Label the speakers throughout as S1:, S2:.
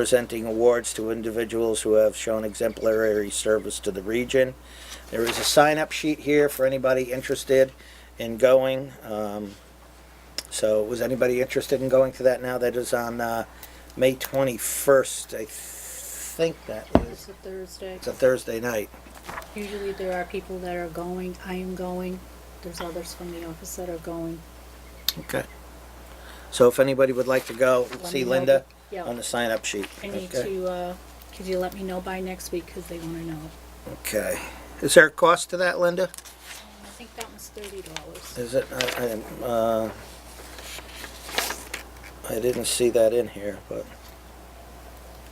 S1: presenting awards to individuals who have shown exemplary service to the region. There is a sign-up sheet here for anybody interested in going. Um, So was anybody interested in going to that now? That is on uh, May 21st, I think that
S2: It's
S1: is.
S2: a Thursday.
S1: It's a Thursday night.
S2: Usually there are people that are going, I am going, there's others from the office that are going.
S1: Okay. So if anybody would like to go,
S2: Let me
S1: see
S2: know.
S1: Linda on
S2: Yeah,
S1: the sign-up sheet.
S2: I need
S1: Okay.
S2: to, uh, could you let me know by next week, cause they wanna know.
S1: Okay. Is there a cost to that, Linda?
S2: I think that was thirty dollars.
S1: Is it, I, I, didn't, uh, I didn't see that in here, but,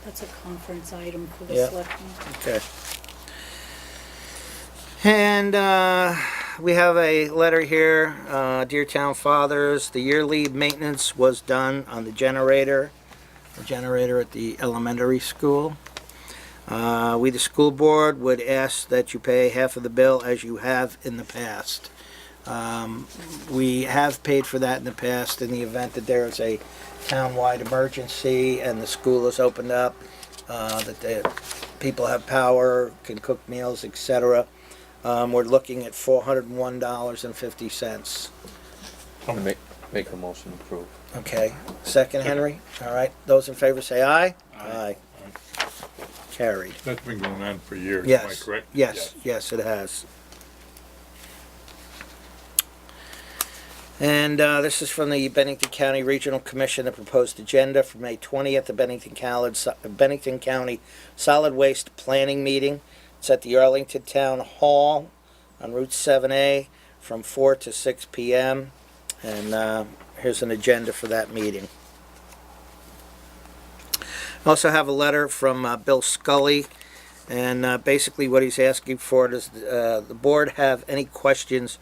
S2: That's a conference item for the
S1: Yeah.
S2: selectmen.
S1: okay. And, uh, we have a letter here, uh, Dear Town Fathers, the yearly maintenance was done on the generator, the generator at the elementary school. Uh, we, the school board, would ask that you pay half of the bill as you have in the past. Um, we have paid for that in the past in the event that there is a town-wide emergency and the school is opened up, uh, that the people have power, can cook meals, etc. Um, we're looking at four hundred and one dollars and fifty cents.
S3: i make, make a motion to approve.
S1: Okay, second, Henry? All right, those in favor say aye? Aye. Carried.
S4: That's been going on for years, am I
S1: Yes,
S4: correct?
S1: yes, yes, it has. And uh, this is from the Bennington County Regional Commission, the proposed agenda for May 20th, the Bennington County, Bennington County Solid Waste Planning Meeting. It's at the Arlington Town Hall on Route 7A from 4 to 6 PM. And uh, here's an agenda for that meeting. I Also have a letter from uh, Bill Scully, and uh, basically what he's asking for does uh, the board have any questions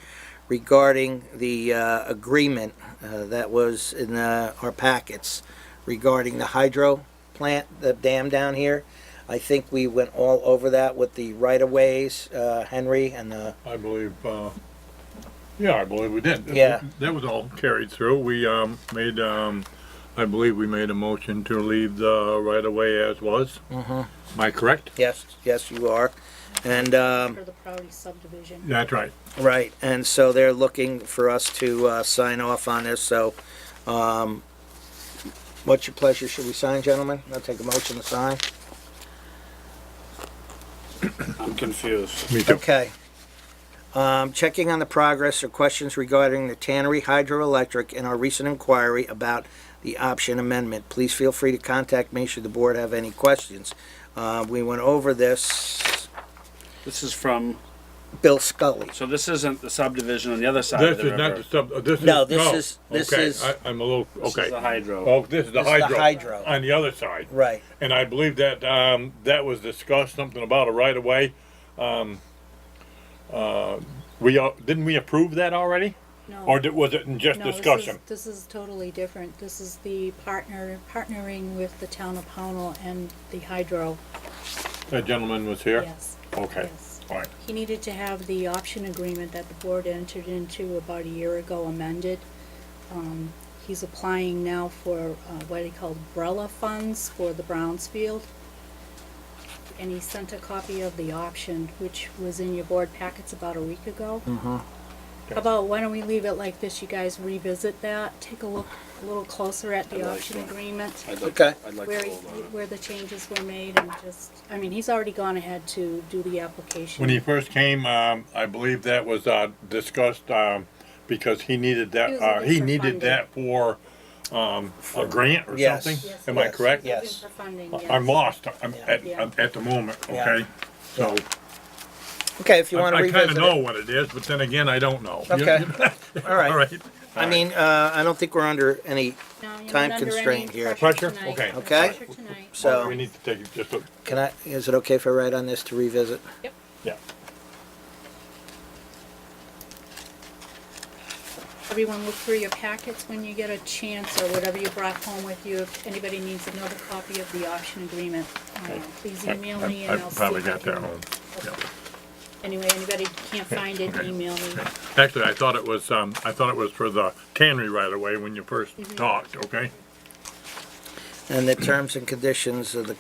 S1: regarding the uh, agreement uh, that was in uh, our packets regarding the hydro plant, the dam down here? I think we went all over that with the right-of-ways, uh, Henry, and the,
S4: I believe, uh, yeah, I believe we did.
S1: Yeah.
S4: That was all carried through. We, um, made, um, I believe we made a motion to leave the right of way as was.
S1: Mm-hmm.
S4: Am I correct?
S1: yes, yes, you are. And, um,
S2: For the Proudy subdivision.
S4: That's right.
S1: Right, and so they're looking for us to uh, sign off on this, so um, what's your pleasure? Should we sign, gentlemen? I'll take a motion to sign.
S5: I'm confused.
S4: Me too.
S1: Okay. Um, Checking on the progress or questions regarding the Tannery Hydroelectric and our recent inquiry about the option amendment. Please feel free to contact me should the board have any questions. Uh, We went over this,
S5: This is from,
S1: Bill Scully.
S5: so this isn't the subdivision on the other side of
S4: This
S5: the river.
S4: is not the sub, uh, this is.
S1: No, this is- this
S4: Okay,
S1: is-
S4: I, I'm a little, okay.
S5: This is the hydro.
S4: Oh, this is the
S1: This is the
S4: hydro.
S1: hydro.
S4: On the other side.
S1: Right.
S4: And I believe that, um, that was discussed, something about a right of way. Um, uh, we, al- didn't we approve that already?
S2: No.
S4: Or did- was it in just
S2: No, this is-
S4: discussion?
S2: This is totally different. This is the partner, partnering with the town of Pownell and the hydro,
S4: That gentleman was here?
S2: yes.
S4: Okay,
S2: yes.
S4: all right.
S2: He needed to have the option agreement that the board entered into about a year ago amended. Um, He's applying now for uh, what he called umbrella funds for the Brownsfield. And he sent a copy of the option, which was in your board packets about a week ago. How about, why don't we leave it like this, you guys revisit that, take a look, a little closer at the
S5: I like
S2: option
S5: that.
S2: agreement
S5: I'd like-
S1: Okay.
S5: I'd like
S2: where,
S5: to
S2: he-
S5: hold on. it.
S2: where the changes were made and just, I mean, he's already gone ahead to do the application.
S4: When he first came, um, I believe that was, uh, discussed, um, because he needed
S2: He
S4: that,
S2: was looking
S4: uh, he
S2: for
S4: needed that for, um, a grant or
S1: Yes,
S4: something?
S2: yes,
S4: Am I
S1: yes,
S4: correct?
S1: yes.
S2: Looking for funding, yes.
S4: I'm lost, I'm,
S1: Yeah.
S4: at,
S2: Yeah.
S4: at the moment,
S1: Yeah.
S4: okay? So,
S1: Okay, if you want to
S4: I I kinda
S1: revisit
S4: know
S1: it.
S4: what it is, but then again, I don't know.
S1: Okay. All
S4: All
S1: right.
S4: right.
S1: I mean, uh, I don't think we're under any
S2: No, you're not
S1: time
S2: under any
S1: constraint here.
S4: Pressure?
S2: tonight.
S4: Okay.
S2: No
S1: Okay.
S2: Pressure tonight.
S1: So-
S4: We need to take just a,
S1: Can I, is it okay if I write on this to revisit?
S2: Yep.
S4: yeah.
S2: Everyone look through your packets when you get a chance or whatever you brought home with you. If anybody needs another copy of the option agreement, uh, please email me
S4: I
S2: and I'll
S4: I've
S2: see.
S4: probably
S2: if I
S4: got that
S2: can-
S4: home. yeah.
S2: Anyway, anybody can't find it,
S4: okay.
S2: email me.
S4: Actually, I thought it was, um, I thought it was for the tannery right away when you first talked, okay?
S1: and the terms and conditions of the